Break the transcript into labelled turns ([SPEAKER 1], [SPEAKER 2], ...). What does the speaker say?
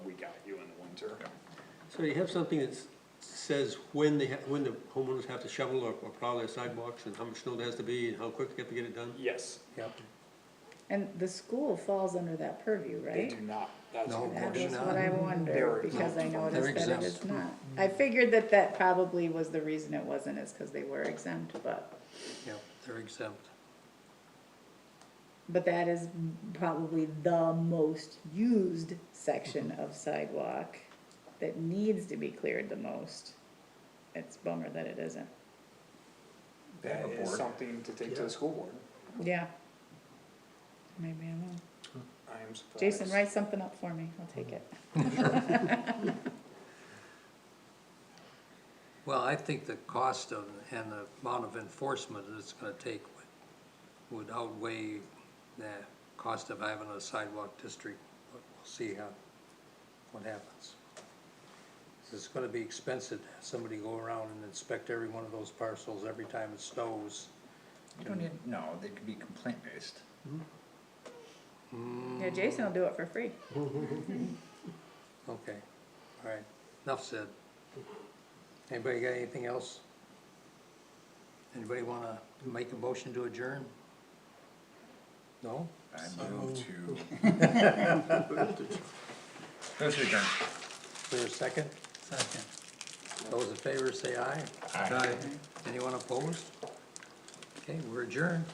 [SPEAKER 1] So you have something that s- says when they, ha- when the homeowners have to shovel or or plow their sidewalks and how much snow there has to be and how quick they have to get it done?
[SPEAKER 2] Yes,
[SPEAKER 1] Yep.
[SPEAKER 3] And the school falls under that purview,
[SPEAKER 2] they
[SPEAKER 3] right?
[SPEAKER 2] do not. That's
[SPEAKER 4] No.
[SPEAKER 3] That
[SPEAKER 4] course
[SPEAKER 3] was
[SPEAKER 4] not.
[SPEAKER 3] what I
[SPEAKER 2] They're
[SPEAKER 3] wondered, because I
[SPEAKER 2] exempt from-
[SPEAKER 3] noticed
[SPEAKER 4] They're
[SPEAKER 3] that it is
[SPEAKER 4] exempt.
[SPEAKER 3] not. I figured that that probably was the reason it wasn't, is because they were exempt, but,
[SPEAKER 4] Yep, they're exempt.
[SPEAKER 3] but that is probably the most used section
[SPEAKER 4] Mm-hmm.
[SPEAKER 3] of sidewalk that needs to be cleared the most. It's bummer that it isn't.
[SPEAKER 2] That is something to take to the school board.
[SPEAKER 3] Yeah. Maybe I will.
[SPEAKER 2] I am surprised.
[SPEAKER 3] Jason, write something up for me, I'll take it.
[SPEAKER 4] Well, I think the cost of, and the amount of enforcement that it's gonna take would would outweigh the cost of having a sidewalk district, but we'll see how, what happens. 'Cause It's gonna be expensive to have somebody go around and inspect every one of those parcels every time it snows.
[SPEAKER 5] You don't need, no, they could be complaint based.
[SPEAKER 3] Yeah, Jason will do it for free.
[SPEAKER 4] Okay, all right, enough said. Anybody got anything else? Anybody wanna make a motion to adjourn? No?
[SPEAKER 5] I move to. Those are done.
[SPEAKER 4] Is there a second? Second. Those in favor say aye.
[SPEAKER 5] Aye.
[SPEAKER 4] Anyone opposed? Okay, we're adjourned.